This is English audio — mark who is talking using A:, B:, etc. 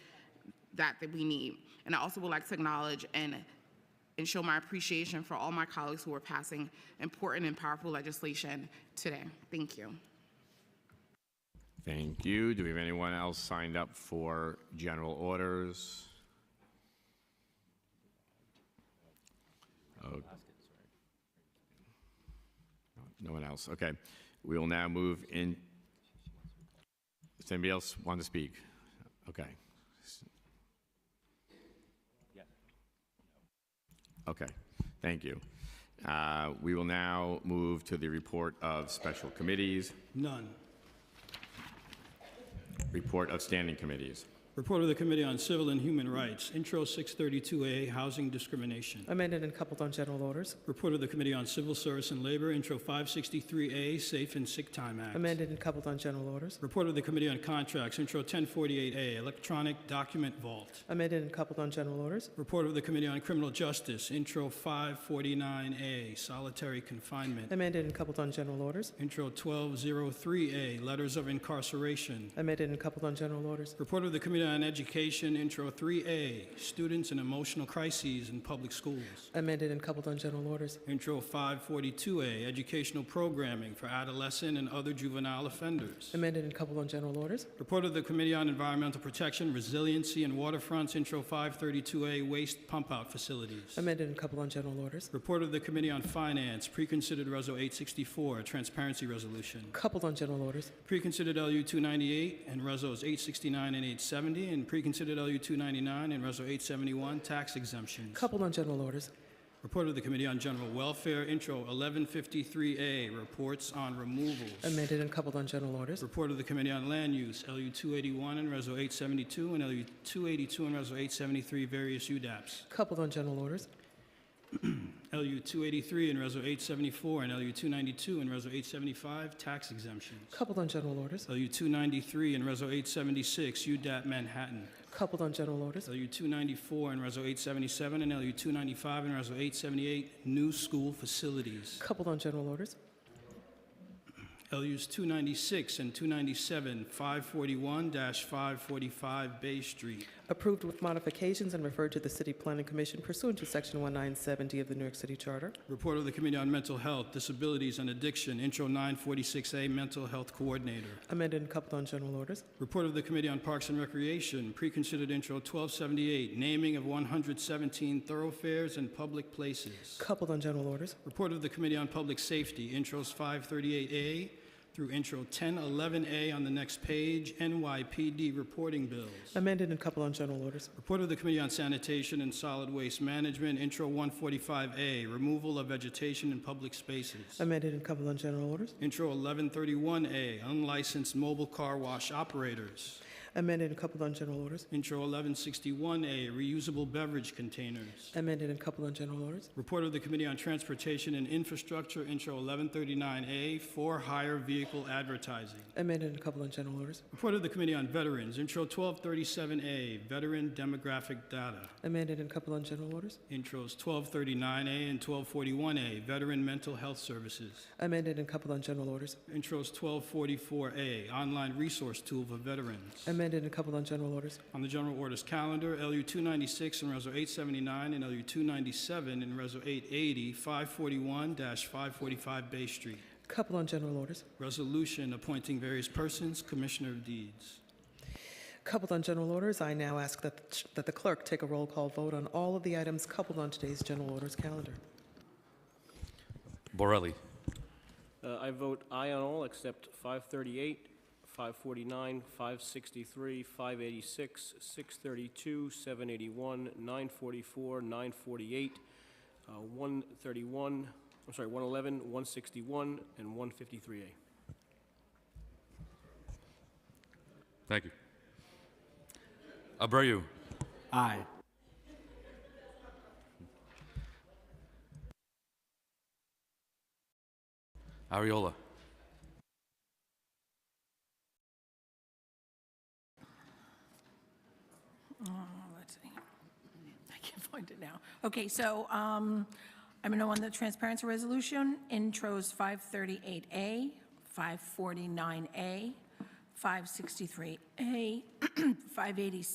A: that that we need. And I also would like to acknowledge and and show my appreciation for all my colleagues who are passing important and powerful legislation today. Thank you.
B: Thank you. Do we have anyone else signed up for general orders? Oh. No one else. Okay. We will now move in. Does anybody else want to speak? Okay. Okay. Thank you. Uh, we will now move to the report of special committees.
C: None.
B: Report of standing committees.
C: Report of the Committee on Civil and Human Rights, Intro 632A, Housing Discrimination.
D: Amended and coupled on general orders.
C: Report of the Committee on Civil Service and Labor, Intro 563A, Safe and Sick Time Act.
D: Amended and coupled on general orders.
C: Report of the Committee on Contracts, Intro 1048A, Electronic Document Vault.
D: Amended and coupled on general orders.
C: Report of the Committee on Criminal Justice, Intro 549A, Solitary Confinement.
D: Amended and coupled on general orders.
C: Intro 1203A, Letters of Incarceration.
D: Amended and coupled on general orders.
C: Report of the Committee on Education, Intro 3A, Students and Emotional Crises in Public Schools.
D: Amended and coupled on general orders.
C: Intro 542A, Educational Programming for Adolescent and Other Juvenile Offenders.
D: Amended and coupled on general orders.
C: Report of the Committee on Environmental Protection, Resiliency, and Waterfronts, Intro 532A, Waste Pump Out Facilities.
D: Amended and coupled on general orders.
C: Report of the Committee on Finance, Preconsidered Reso 864, Transparency Resolution.
D: Coupled on general orders.
C: Preconsidered LU 298 and Resos 869 and 870, and Preconsidered LU 299 and Reso 871, Tax Exemptions.
D: Coupled on general orders.
C: Report of the Committee on General Welfare, Intro 1153A, Reports on Removals.
D: Amended and coupled on general orders.
C: Report of the Committee on Land Use, LU 281 and Reso 872, and LU 282 and Reso 873, various UDAPs.
D: Coupled on general orders.
C: LU 283 and Reso 874, and LU 292 and Reso 875, tax exemptions.
D: Coupled on general orders.
C: LU 293 and Reso 876, UDAP Manhattan.
D: Coupled on general orders.
C: LU 294 and Reso 877, and LU 295 and Reso 878, new school facilities.
D: Coupled on general orders.
C: LUs 296 and 297, 541-545 Bay Street.
D: Approved with modifications and referred to the City Planning Commission pursuant to Section 1970 of the New York City Charter.
C: Report of the Committee on Mental Health, Disabilities, and Addiction, Intro 946A, Mental Health Coordinator.
D: Amended and coupled on general orders.
C: Report of the Committee on Parks and Recreation, Preconsidered Intro 1278, Naming of 117 Thoroughfares and Public Places.
D: Coupled on general orders.
C: Report of the Committee on Public Safety, Intros 538A through Intro 1011A on the next page, NYPD Reporting Bills.
D: Amended and coupled on general orders.
C: Report of the Committee on Sanitation and Solid Waste Management, Intro 145A, Removal of Vegetation in Public Spaces.
D: Amended and coupled on general orders.
C: Intro 1131A, Unlicensed Mobile Car Wash Operators.
D: Amended and coupled on general orders.
C: Intro 1161A, Reusable Beverage Containers.
D: Amended and coupled on general orders.
C: Report of the Committee on Transportation and Infrastructure, Intro 1139A, For Hire Vehicle Advertising.
D: Amended and coupled on general orders.
C: Report of the Committee on Veterans, Intro 1237A, Veteran Demographic Data.
D: Amended and coupled on general orders.
C: Intros 1239A and 1241A, Veteran Mental Health Services.
D: Amended and coupled on general orders.
C: Intros 1244A, Online Resource Tool for Veterans.
D: Amended and coupled on general orders.
C: On the general orders calendar, LU 296 and Reso 879 and LU 297 and Reso 880, 541-545 Bay Street.
D: Coupled on general orders.
C: Resolution appointing various persons, Commissioner of Deeds.
D: Coupled on general orders, I now ask that, that the clerk take a roll call vote on all of the items coupled on today's general orders calendar.
E: Borelli.
F: Uh, I vote aye on all except 538, 549, 563, 586, 632, 781, 944, 948, uh, 131, I'm sorry, 111, 161, and 153A.
E: Thank you. Abreu.
G: Aye.
E: Ariola.
H: let's see. I can't find it now. Okay, so um, I'm going to on the transparency resolution, intros 538A, 549A, 563A, 586.